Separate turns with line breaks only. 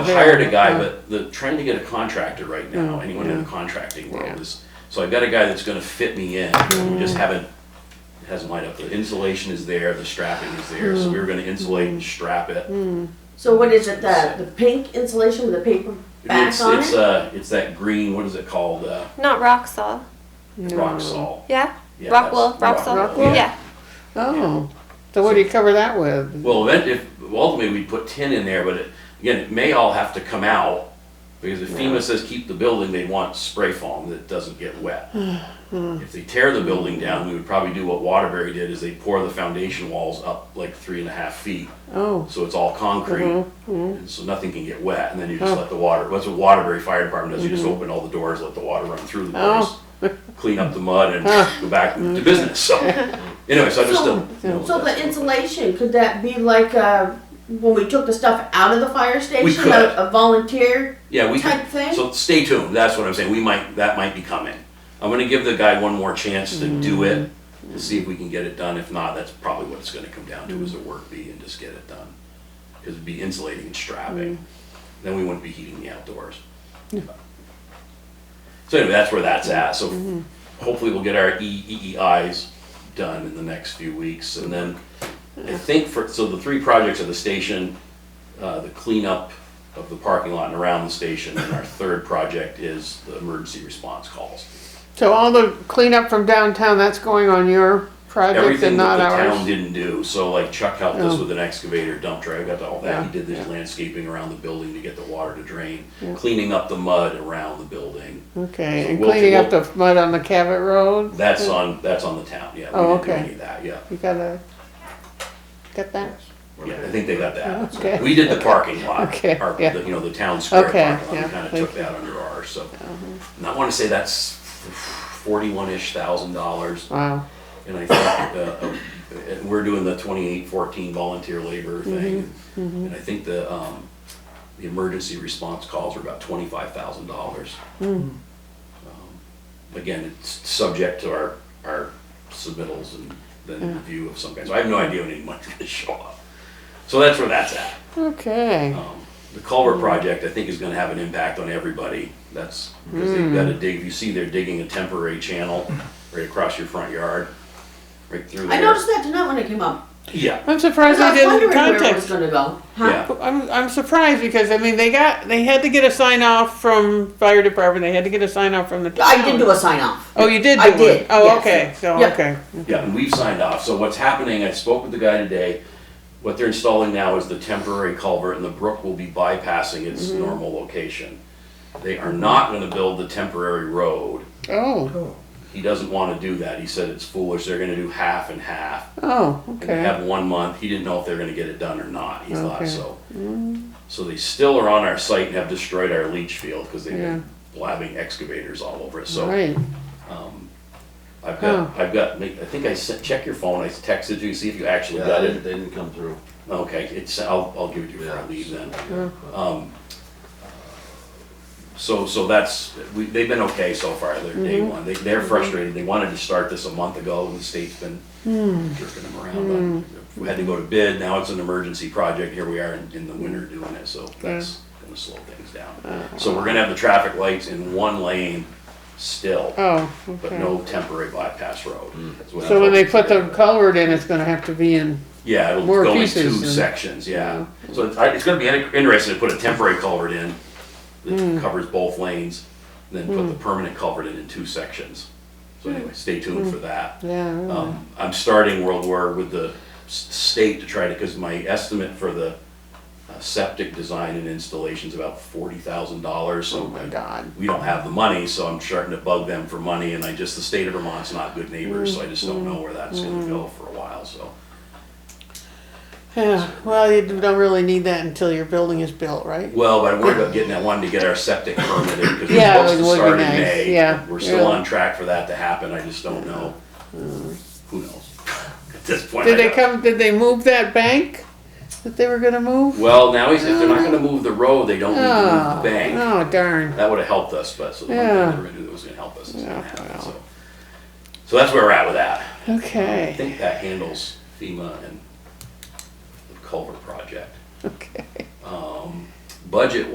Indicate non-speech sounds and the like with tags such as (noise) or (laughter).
hired a guy, but the trying to get a contractor right now, anyone in the contracting world
Mm, Yeah. Mm.
is, so I've got a guy that's gonna fit me in, we just haven't, hasn't lined up, the insulation is there, the strapping is there,
Mm.
so we were gonna insulate and strap it.
So what is it, the, the pink insulation with the paper back
It's,
on
it's,
it?
uh, it's that green, what is it called, uh,
Not rock salt.
rock salt.
Yeah?
Yeah,
rock wool,
that's-
rock salt.
rock
wool.
Yeah.
Oh, so what do you cover that with?
Well, event, if, ultimately, we put tin in there, but it, again, it may all have to come out, because if FEMA says keep the building, they want spray foam that doesn't get wet. If they tear the building down, we would probably do what Waterbury did, is they pour the foundation walls up like three and a half feet,
Oh,
so it's all concrete, and so nothing can get wet, and then you just let the water, that's what Waterbury Fire Department does, you just open all the doors, let the water run through the doors,
Oh.
clean up the mud and go back to business, so, anyway, so I just uh,
So-
don't. you know,
So
that's-
the insulation, could that be like, uh, when we took the stuff out of the fire station,
could.
a, a volunteer?
Yeah, we could-
type thing?
So stay tuned. That's what I'm saying. We might that might be coming. I'm gonna give the guy one more chance to do it
Mm-hmm.
to see if we can get it done. If not, that's probably what it's gonna come down to is a work bee and just get it done. Because it'd be insulating and strapping.
Mm-hmm.
Then we wouldn't be heating the outdoors. So anyway, that's where that's at. So
Mm-hmm.
hopefully we'll get our E, EEEIs done in the next few weeks. And then I think for, so the three projects are the station, uh, the cleanup of the parking lot and around the station, and our third project is the emergency response calls.
so all the cleanup from downtown, that's going on your project
Everything
and
that
not
the town
ours?
didn't do, so like Chuck helped us
Oh.
with an excavator dump truck, I got to all that, he did this landscaping around the building to get the water to drain, cleaning up the mud around the building.
Okay,
So
and
we'll-
cleaning up
we'll-
the mud on the Cabot Road?
That's on, that's on the town, yeah, we
Oh,
didn't do
okay.
any of that, yeah.
You gotta, got that?
Yeah, I think they got that.
Okay.
We did the parking lot,
(laughs) Okay,
our,
yeah.
the- you know, the town square
Okay,
parking lot,
yeah, Uh-huh.
we kinda took
thank
that under ours, so. And I wanna say that's forty-one-ish thousand dollars,
Wow,
and I think, uh, uh, and we're doing the twenty-eight fourteen volunteer labor
Mm-hmm.
thing. And I think the, um, the emergency response calls are about twenty-five thousand dollars.
Hmm.
Um, Again, it's subject to our, our submittals and then review of some kind, so I have no idea when any money's gonna show up. So that's where that's at.
okay,
Um, The culvert
Hmm.
project, I think, is gonna have an impact on everybody. That's, because they've gotta
Hmm.
dig, you see they're digging a temporary channel right across your front yard, right through there.
I noticed that tonight when it came up.
Yeah,
I'm
'Cause
surprised they
I was
didn't
wondering where it was
contact.
gonna go. Huh?
yeah,
I'm, I'm surprised because, I mean, they got, they had to get a sign off from fire department, they had to get a sign off from the town.
I did do a sign off.
Oh, you did do
I
one?
did,
Oh,
yes.
okay, so,
Yeah.
okay.
yeah, and we've signed off. So what's happening, I spoke with the guy today. What they're installing now is the temporary culvert and the brook will be bypassing its
Mm-hmm.
normal location. They are not gonna build the temporary road.
Oh,
He doesn't wanna do that. He said it's foolish. They're gonna do half and half.
oh,
and they
okay.
have one month. He didn't know if they were gonna get it done or not, he thought
Okay. Mm-hmm.
so. So they still are on our site and have destroyed our leach field, cause they've been blabbing excavators all over it, so.
Right.
Um, I've got, I've got, I think I sent, check your phone, I texted you, see if you actually
Yeah,
got
they
it.
didn't, they didn't come through.
Okay, it's, I'll, I'll give it to you before I
Yeah.
leave then. Um, So, so that's, we, they've been okay so far, they're day one, they, they're frustrated, they wanted to start this a month ago, and the state's been jerking them around. on- We had to go to bid, now it's an emergency project, here we are in, in the winter doing it, so that's gonna slow things down. So we're gonna have the traffic lights in one lane still,
Oh,
but
okay.
no temporary bypass road. That's what I'm
So when they
hoping
put
to
the
do.
culvert in, it's gonna have to be in,
Yeah, it'll
More
go in
pieces
two
and-
sections, yeah. So it's, I- it's gonna be in- interesting to put a temporary culvert in
Hmm.
that covers both lanes, and then put the permanent culvert in in two sections. So
Hmm.
anyway, stay tuned for that.
yeah, really.
Um, I'm starting World War with the s- state to try to, because my estimate for the uh, septic design and installation's about forty thousand dollars, so.
oh my god.
We don't have the money, so I'm starting to bug them for money, and I just, the state of Vermont's not good neighbors, so I just don't know where that's gonna go for a while, so.
Yeah, well, you don't really need that until your building is built, right?
Well, but I worried about getting that one to get our septic permitted, because we're
Yeah,
supposed
it
to
would be
start in
nice,
May.
yeah,
We're still
yeah.
on track for that to happen, I just don't know. Who knows? (laughs) At this point. I
Did they
don't-
come, did they move that bank that they were gonna move?
Well, now he's, if they're not gonna move the road, they don't need to move
Oh,
the bank.
oh darn.
That would've helped us, but so the one
Yeah.
thing they were gonna do that was gonna help us is gonna
Yeah,
happen,
well.
so. So that's where we're at with that. I
Okay,
think that handles FEMA and the culvert project. Um,
okay.
Budget